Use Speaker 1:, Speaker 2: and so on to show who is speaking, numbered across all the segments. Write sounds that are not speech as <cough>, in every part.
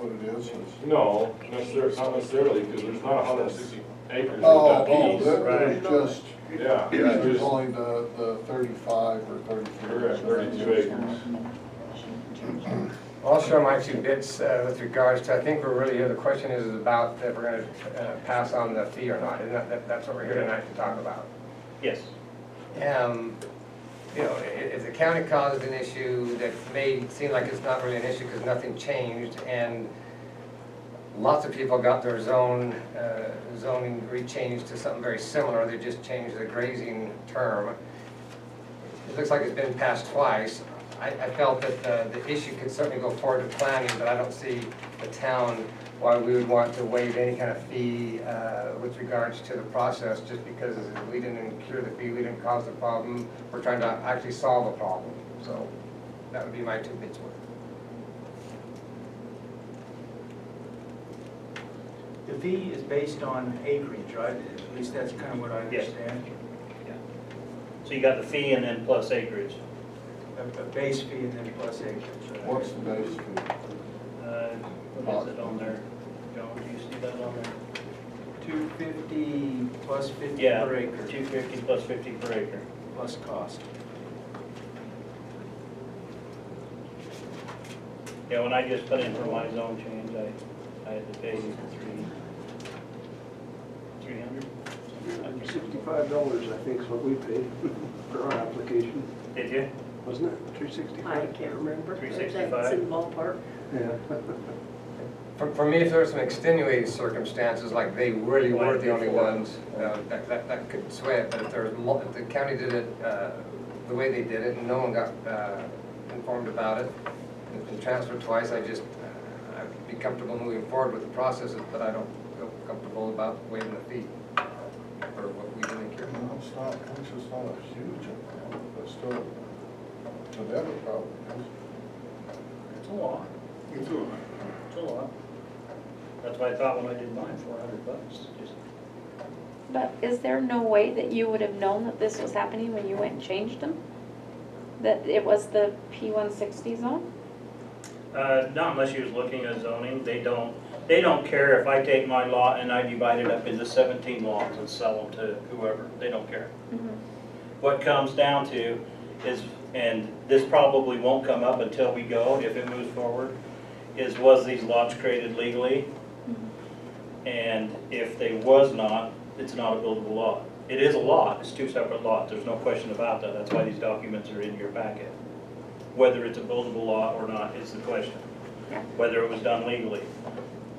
Speaker 1: what it is? It's-
Speaker 2: No, necessarily, not necessarily, because there's not hundred and sixty acres of
Speaker 1: Oh,
Speaker 2: that
Speaker 1: oh,
Speaker 2: piece.
Speaker 1: that
Speaker 2: Right.
Speaker 1: was just,
Speaker 2: Yeah,
Speaker 1: it
Speaker 2: it's
Speaker 1: was
Speaker 2: just,
Speaker 1: only the, the thirty-five or thirty-three.
Speaker 2: we're at thirty-two acres.
Speaker 3: I'll show my two bits uh, with regards to, I think we're really here, the question is is about if we're going to pass on the fee or not. Isn't that- that, that's what we're here tonight to talk about?
Speaker 4: Yes.
Speaker 3: Um, You know, i- if the county caused an issue that may seem like it's not really an issue because nothing changed and lots of people got their zone, uh, zoning rechanged to something very similar, they just changed the grazing term. It looks like it's been passed twice. I, I felt that the, the issue could certainly go forward to planning, but I don't see the town why we would want to waive any kind of fee, uh, with regards to the process, just because we didn't cure the fee, we didn't cause the problem. We're trying to actually solve a problem, so that would be my two bits worth.
Speaker 5: The fee is based on acreage, right? At least that's kind of what I
Speaker 4: Yes.
Speaker 5: understand.
Speaker 4: So you got the fee and then plus acreage.
Speaker 5: A a base fee and then plus acreage. right?
Speaker 1: What's the base fee?
Speaker 4: Uh, What is it on there? John, do you see that on there?
Speaker 5: 250 plus 50
Speaker 4: Yeah,
Speaker 5: per acre,
Speaker 4: two fifty plus fifty per acre.
Speaker 5: plus cost.
Speaker 4: Yeah, when I just put in for my zone change, I, I had to pay three, three hundred?
Speaker 6: Sixty-five dollars, I think, is what we paid <laughs> for our application,
Speaker 4: Did you?
Speaker 6: wasn't it? Three
Speaker 7: I
Speaker 6: sixty-five?
Speaker 7: can't remember.
Speaker 4: 365.
Speaker 7: That's in the ballpark.
Speaker 6: Yeah.
Speaker 3: For, for me, if there were some extenuating circumstances, like they really were the only ones, uh, that, that, that could sway it, but if there was, mul- if the county did it, uh, the way they did it, and no one got, uh, informed about it, and it's been transferred twice, I just, uh, I'd be comfortable moving forward with the processes, but I don't feel comfortable about waiving the fee, or what we didn't care.
Speaker 1: No, it's not, it's just not a huge amount, but still, to them it probably is.
Speaker 4: It's a lot. It's a lot. It's a lot. That's what I thought when I did mine, four hundred bucks, just.
Speaker 8: But is there no way that you would have known that this was happening when you went and changed them? That it was the P one sixty zone?
Speaker 4: Uh, not unless you was looking at zoning, they don't, they don't care if I take my lot and I divide it up into seventeen lots and sell them to whoever, they don't care. What comes down to is, and this probably won't come up until we go, if it moves forward, is was these lots created legally? And if they was not, it's not a buildable lot. It is a lot, it's two separate lots, there's no question about that, that's why these documents are in your packet. Whether it's a buildable lot or not is the question,
Speaker 8: Yeah.
Speaker 4: whether it was done legally.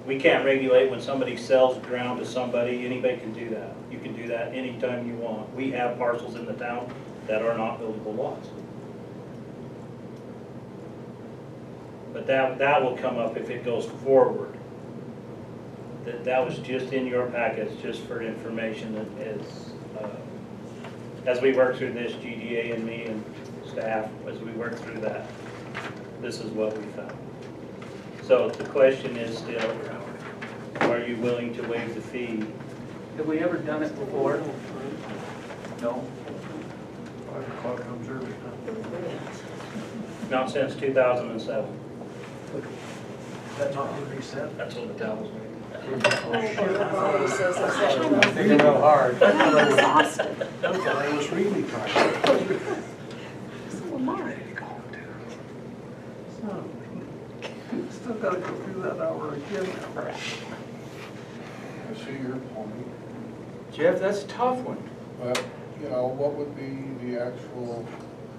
Speaker 4: We can't regulate when somebody sells ground to somebody, anybody can do that. You can do that anytime you want. We have parcels in the town that are not buildable lots. But that, that will come up if it goes forward. That, that was just in your packets, just for information that is, uh, as we work through this, GDA and me and staff, as we work through that, this is what we found. So the question is still, are you willing to waive the fee?
Speaker 5: Have we ever done it before? No?
Speaker 6: Five o'clock comes early.
Speaker 4: Not since two thousand and seven.
Speaker 6: That's not been reset?
Speaker 4: That's what the town was making.
Speaker 3: Thinking real hard.
Speaker 8: I'm exhausted.
Speaker 6: I was really tired.
Speaker 8: So am I.
Speaker 6: <laughs> Still gotta go through that hour again.
Speaker 1: I see your point,
Speaker 5: Jeff, that's a tough one.
Speaker 1: but, you know, what would be the actual,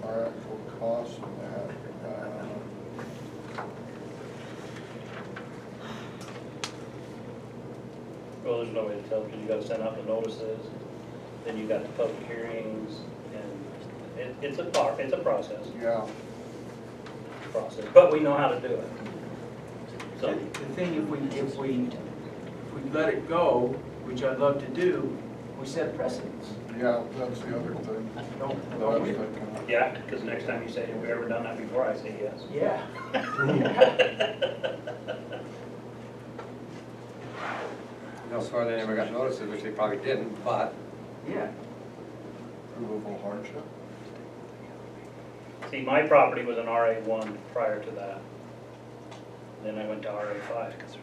Speaker 1: our actual cost of that? Uh,
Speaker 4: Well, there's no way to tell, because you gotta send out the notices, then you got the public hearings, and it, it's a par, it's a process,
Speaker 1: Yeah,
Speaker 4: process, but we know how to do it.
Speaker 5: The
Speaker 4: So,
Speaker 5: the thing, if we, if we, if we let it go, which I'd love to do, we set precedents.
Speaker 1: yeah, that's the other thing
Speaker 5: Don't-
Speaker 1: that I
Speaker 5: don't
Speaker 1: was
Speaker 5: we?
Speaker 1: thinking of.
Speaker 4: yeah, because next time you say, have we ever done that before, I say yes.
Speaker 5: Yeah.
Speaker 4: <laughs>
Speaker 3: No, swear they never got notices, which they probably didn't, but
Speaker 5: Yeah.
Speaker 1: uh, Provable hardship.
Speaker 4: See, my property was an RA one prior to that. Then I went to RA five, because